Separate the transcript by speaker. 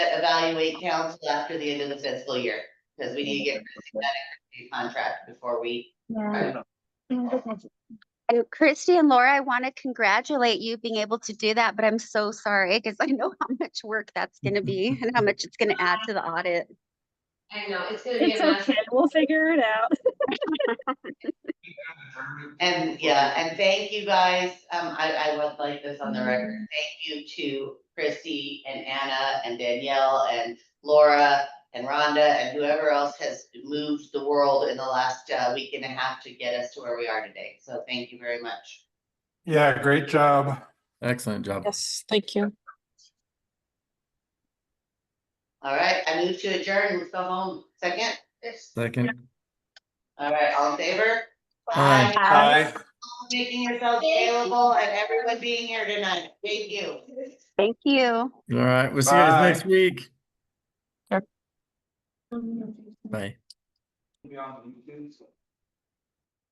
Speaker 1: evaluate council after the end of the fiscal year, because we need to get
Speaker 2: Mm-hmm.
Speaker 1: that contract before we.
Speaker 3: Yeah. Mm,
Speaker 4: And Christy and Laura, I want to congratulate you being able to do that, but I'm so sorry because I know how much work that's going to be and how much it's going to add to the audit.
Speaker 2: I know, it's gonna be
Speaker 3: It's
Speaker 2: a mess.
Speaker 3: okay, we'll figure it out.
Speaker 1: And, yeah, and thank you guys, um, I, I would like this on the record, thank you to Christy and Anna and Danielle and Laura and Rhonda and whoever else has moved the world in the last, uh, week and a half to get us to where we are today, so thank you very much.
Speaker 5: Yeah, great job.
Speaker 6: Excellent job.
Speaker 7: Yes, thank you.
Speaker 1: All right, I move to adjourn, let's go home, second,
Speaker 6: Second.
Speaker 1: all right, all in favor?
Speaker 6: Aye.
Speaker 5: Bye.
Speaker 1: Making yourselves available and everyone being here tonight, thank you.
Speaker 4: Thank you.
Speaker 6: All right. We'll see you
Speaker 5: Bye.
Speaker 6: guys next week. Bye.